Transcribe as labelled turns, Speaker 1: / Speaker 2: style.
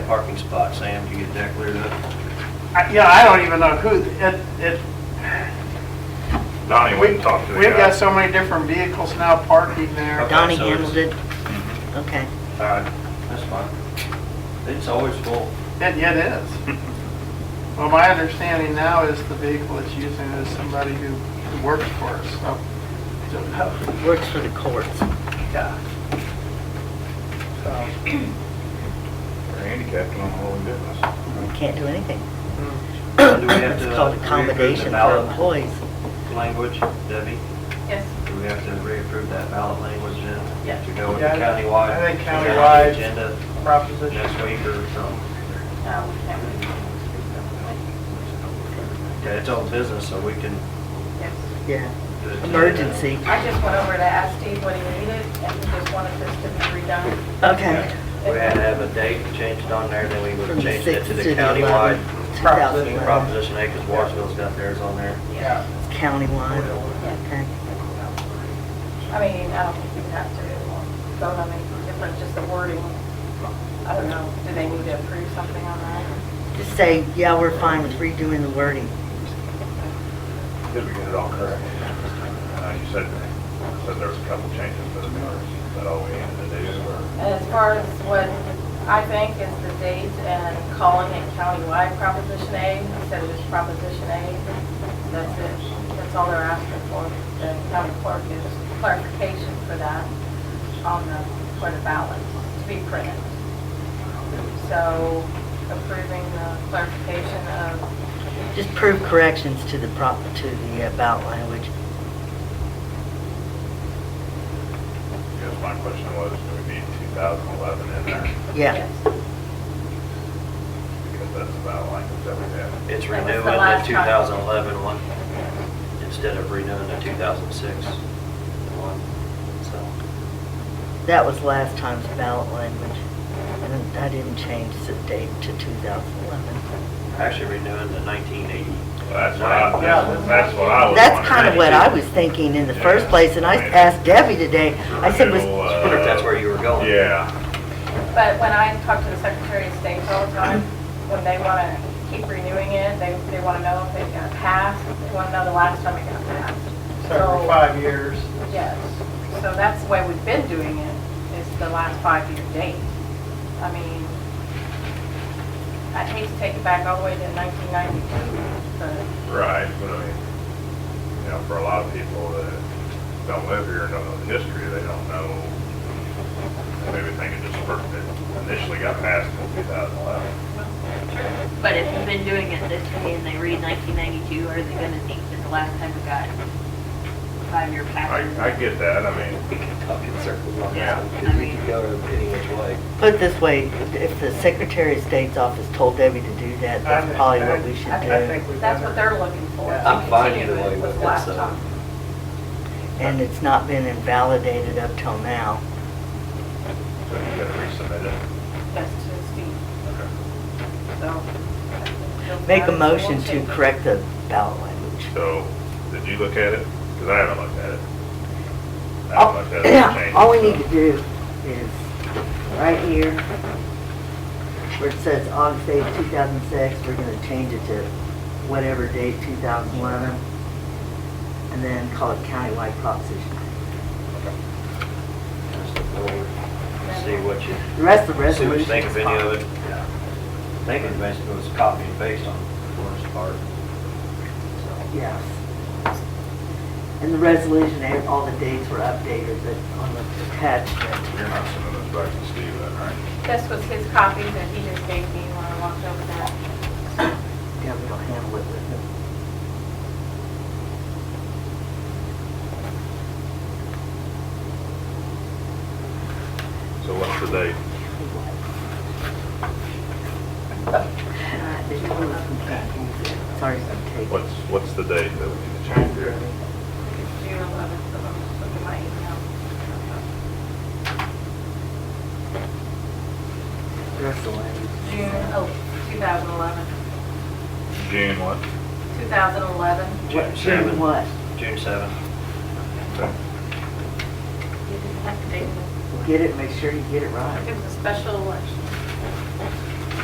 Speaker 1: parking spot, Sam, do you get that cleared up?
Speaker 2: I- Yeah, I don't even know who, it, it,
Speaker 3: Donnie
Speaker 2: we,
Speaker 3: went and talked to the
Speaker 2: we've got
Speaker 3: guy.
Speaker 2: so many different vehicles now parking there.
Speaker 1: Okay,
Speaker 4: Donnie
Speaker 1: so it's-
Speaker 4: handled it? Okay.
Speaker 1: All
Speaker 3: Uh,
Speaker 1: right, that's fine. It's always full.
Speaker 2: It, it is. Well, my understanding now is the vehicle it's using is somebody who who works for us, so. so,
Speaker 4: Works for the courts.
Speaker 2: yeah. So,
Speaker 3: They're handicapped on all in business.
Speaker 4: We can't do anything.
Speaker 1: Do we have
Speaker 4: It's
Speaker 1: to
Speaker 4: called
Speaker 1: reapprove the
Speaker 4: accommodation for
Speaker 1: ballot?
Speaker 4: employees.
Speaker 1: Language, Debbie,
Speaker 5: Yes,
Speaker 1: do we have to reapprove that ballot language then?
Speaker 5: Yes.
Speaker 1: To go with the
Speaker 2: Yeah, I think-
Speaker 1: countywide?
Speaker 2: I think
Speaker 1: to go on the
Speaker 2: countywide-
Speaker 1: Agenda
Speaker 2: Proposition.
Speaker 1: next week or something.
Speaker 5: uh, we can't really do
Speaker 1: Okay, it's old business, so we can
Speaker 5: it. Yes.
Speaker 4: Yeah.
Speaker 1: do it. today.
Speaker 4: Emergency.
Speaker 5: I just went over to ask Steve what he needed, and he just wanted this to be redone.
Speaker 4: Okay.
Speaker 1: We had to have a date changed on there, then we would
Speaker 4: From
Speaker 1: have
Speaker 4: the
Speaker 1: changed it
Speaker 4: sixth
Speaker 1: to
Speaker 4: to
Speaker 1: the
Speaker 4: the
Speaker 1: countywide.
Speaker 4: eleventh, two thousand
Speaker 1: Proposition-
Speaker 4: eleven.
Speaker 1: Proposition A, because Washington's got theirs on there.
Speaker 2: Yeah.
Speaker 4: Countywide, okay.
Speaker 5: I mean, I don't think you have to go on any different, just the wording. I don't know, do they need to approve something on that?
Speaker 4: Just say, yeah, we're fine with redoing the wording.
Speaker 3: Did we get it all correct? I know you said, said there was a couple changes, but I mean, is that all we had to do? or-
Speaker 5: And as far as what I think is the date and calling it countywide Proposition A instead of just Proposition A, that's it. That's all they're asking for. The county clerk is clarification for that on the, for the ballot to be printed. So approving the clarification of,
Speaker 4: Just prove corrections to the prop, to the uh, ballot language.
Speaker 3: Because my question was, do we need 2011 in there?
Speaker 4: Yeah.
Speaker 3: Because that's about like that we have.
Speaker 1: It's
Speaker 5: That was the
Speaker 1: renewing the
Speaker 5: last time.
Speaker 1: 2011 one instead of renewing the 2006 one, so.
Speaker 4: That was last time's ballot language. And I didn't change the date to 2011.
Speaker 1: Actually renewing the 1980.
Speaker 3: That's what I, that's- that's what I was
Speaker 4: That's kind of
Speaker 3: wondering.
Speaker 4: what I was thinking in the first place, and I asked Debbie today, I said, was,
Speaker 3: Renewal,
Speaker 1: I wonder if that's where you were going.
Speaker 3: Yeah,
Speaker 5: But when I talk to the Secretary of State all the time, when they want to keep renewing it, they, they want to know if it got passed, they want to know the last time it got passed.
Speaker 2: So every five years.
Speaker 5: Yes, so that's the way we've been doing it, is the last five-year date. I mean, I'd hate to take it back all the way to 1992, but
Speaker 3: right, but I mean, you know, for a lot of people that don't live here, and don't know the history, they don't know. Maybe think it just first, it initially got passed in 2011.
Speaker 6: But if you've been doing it this way and they read 1992, are they gonna think that the last time we got five-year
Speaker 3: I,
Speaker 6: pass?
Speaker 3: I get that, I mean,
Speaker 1: We can talk in circles on
Speaker 6: Yeah.
Speaker 1: that one, 'cause we could go any which way.
Speaker 4: put it this way, if the Secretary of State's office told Debbie to do that,
Speaker 2: I
Speaker 4: that's
Speaker 2: think-
Speaker 4: probably what we
Speaker 2: I-
Speaker 4: should
Speaker 2: I
Speaker 4: do.
Speaker 2: think we've
Speaker 5: that's
Speaker 2: done
Speaker 5: what
Speaker 2: it.
Speaker 5: they're looking for.
Speaker 2: Yeah.
Speaker 1: I'm fine either
Speaker 5: Continue
Speaker 1: way uh,
Speaker 5: it
Speaker 1: with
Speaker 5: the
Speaker 1: it,
Speaker 5: last
Speaker 1: so.
Speaker 5: time.
Speaker 4: And it's not been invalidated up till now.
Speaker 3: so you gotta resubmit it.
Speaker 5: That's to Steve, so.
Speaker 4: Make a motion
Speaker 5: We'll
Speaker 4: to
Speaker 5: change it.
Speaker 4: correct the ballot language.
Speaker 3: So, did you look at it? Because I haven't looked at it. I haven't looked at it,
Speaker 4: Oh, Yeah,
Speaker 3: changed,
Speaker 4: all we
Speaker 3: so.
Speaker 4: need to do is, right here, where it says August 8, 2006, we're going to change it to whatever date, 2011, and then call it countywide proposition.
Speaker 1: Just look forward, See what you,
Speaker 4: The rest of the
Speaker 1: see what you
Speaker 4: resolution
Speaker 1: think
Speaker 4: is
Speaker 1: of any of
Speaker 4: fine.
Speaker 1: it. I think it basically was copy and paste on the first part. So,
Speaker 4: Yes. And the resolution, eh, all the dates were updated, but on the attachment,
Speaker 3: You're not sending this back to Steve, then, right?
Speaker 5: This was his copy that he just gave me when I walked over there.
Speaker 4: yeah, we don't handle it with them.
Speaker 3: So what's the date?
Speaker 4: Sorry, I'm taking.
Speaker 3: What's, what's the date that we need to change here?
Speaker 5: June 11th, so I'm just looking at my email.
Speaker 4: The rest of the language.
Speaker 5: June, oh, 2011,
Speaker 3: June what?
Speaker 5: 2011.
Speaker 1: June
Speaker 4: June
Speaker 1: 7,
Speaker 4: what?
Speaker 1: June 7.
Speaker 5: You didn't have to date
Speaker 4: Get it, make sure you get it right.
Speaker 5: it. It was a special election.